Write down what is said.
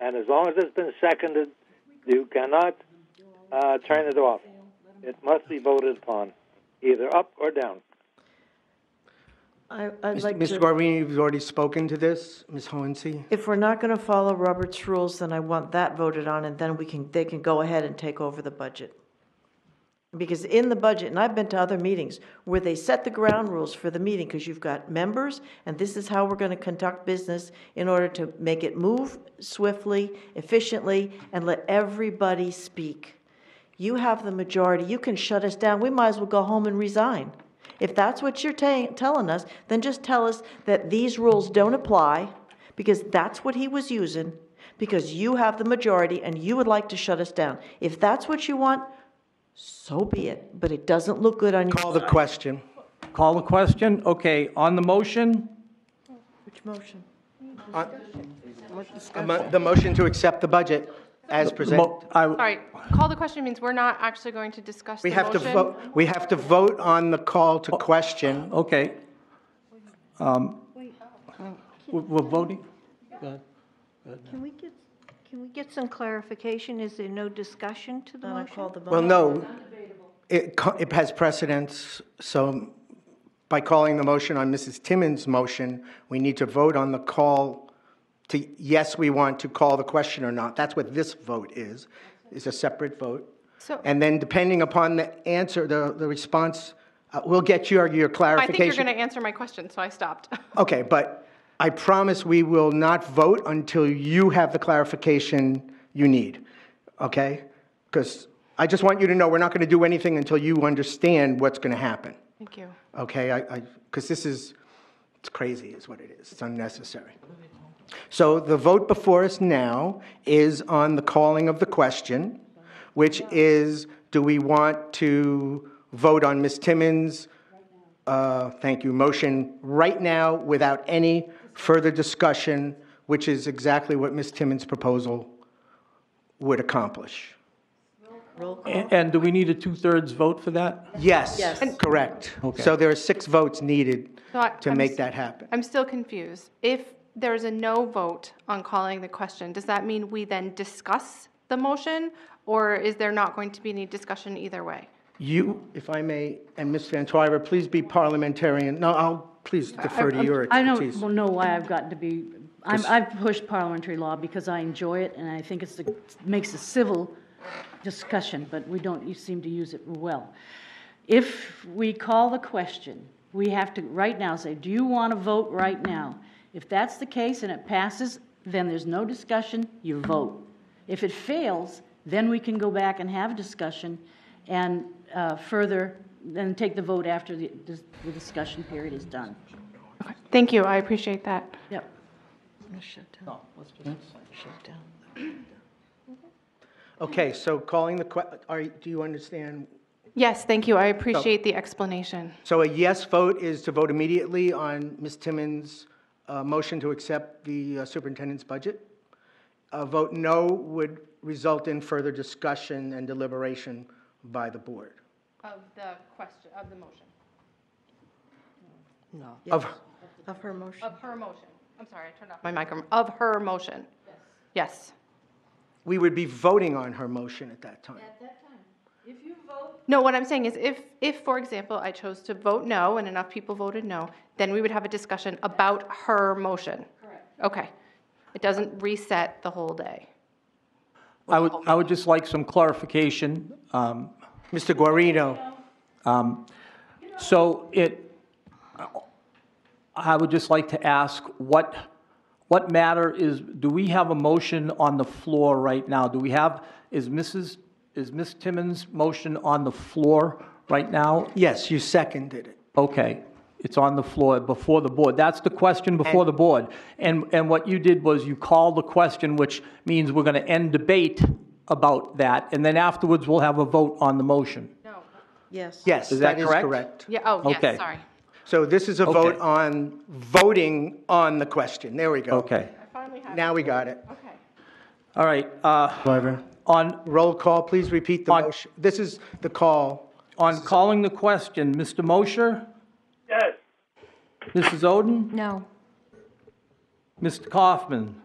and as long as it's been seconded, you cannot uh, turn it off. It must be voted upon, either up or down. I- I'd like Mr. to, Guarini, you've already spoken to this, Ms. Hohensee. if we're not going to follow Robert's rules, then I want that voted on, and then we can, they can go ahead and take over the budget. Because in the budget, and I've been to other meetings, where they set the ground rules for the meeting, because you've got members, and this is how we're going to conduct business in order to make it move swiftly, efficiently, and let everybody speak. You have the majority, you can shut us down, we might as well go home and resign. If that's what you're ta- telling us, then just tell us that these rules don't apply, because that's what he was using, because you have the majority and you would like to shut us down. If that's what you want, so be it, but it doesn't look good on your. Call the question. Call the question? Okay, on the motion, Which motion? A mo- The motion to accept the budget as presented. mo- I- Sorry, call the question means we're not actually going to discuss the We have to motion. vote, we have to vote on the call to question. okay. Um, We're we're voting? Go ahead. Can we get, can we get some clarification? Is there no discussion to the Then I call motion? the Well, vote. no, it, co- it has precedence, so by calling the motion on Mrs. Timmons' motion, we need to vote on the call to, yes, we want to call the question or not. That's what this vote is, is a separate vote. So- And then depending upon the answer, the, the response, uh, we'll get your, your I clarification. think you're going to answer my question, so I stopped. Okay, but I promise we will not vote until you have the clarification you need, okay? Because I just want you to know, we're not going to do anything until you understand what's going to happen, Thank you. okay? I, because this is, it's crazy is what it is, it's unnecessary. So the vote before us now is on the calling of the question, which is, do we want to vote on Ms. Timmons' uh, thank you, motion right now without any further discussion, which is exactly what Ms. Timmons' proposal would accomplish. Roll call. A- And do we need a two-thirds vote for that? Yes, Yes. correct. Okay. So there are six votes needed So I- to I'm make s- that happen. I'm still confused. If there's a no vote on calling the question, does that mean we then discuss the motion? Or is there not going to be any discussion either way? You, if I may, and Ms. Van Twyver, please be parliamentarian. No, I'll, please defer to your I expertise. don't know why I've gotten to be, I'm, I've pushed parliamentary law because I enjoy it, and I think it's, the- makes a civil discussion, but we don't seem to use it well. If we call the question, we have to, right now, say, do you want to vote right now? If that's the case and it passes, then there's no discussion, you vote. If it fails, then we can go back and have a discussion and uh, further, then take the vote after the, the discussion period is done. Thank you, I appreciate that. Yep. Okay, so calling the que, are, do you understand? Yes, thank you, I appreciate the explanation. So a yes vote is to vote immediately on Ms. Timmons' uh, motion to accept the uh, superintendent's budget. A vote no would result in further discussion and deliberation by the board. Of the question, of the motion, Of, Of her motion. of her motion. I'm sorry, I turned off my microphone. Of her motion. Yes. we would be voting on her motion at that time. No, what I'm saying is if, if, for example, I chose to vote no and enough people voted no, then we would have a discussion about her motion. Correct. Okay. It doesn't reset the whole day. I would, I would just like some clarification. Um, Mr. Guarino? So it, I would just like to ask, what, what matter is, do we have a motion on the floor right now? Do we have, is Mrs., is Ms. Timmons' motion on the floor right now? Yes, you seconded it. Okay, it's on the floor before the board. That's the question before the board. And, and what you did was you called the question, which means we're going to end debate about that, and then afterwards, we'll have a vote on the motion. No. Yes. Yes, Is that that is correct? correct. Yeah, oh, Okay. yes, sorry. So this is a vote Okay. on voting on the question. There we go. Okay, Finally have, Now we got it. okay. all right. uh, Driver. On, Roll call, please repeat the On- motion. This is the call. On calling the question, Mr. Mosher? Yes. Mrs. Oden? No. Mr. Kaufman?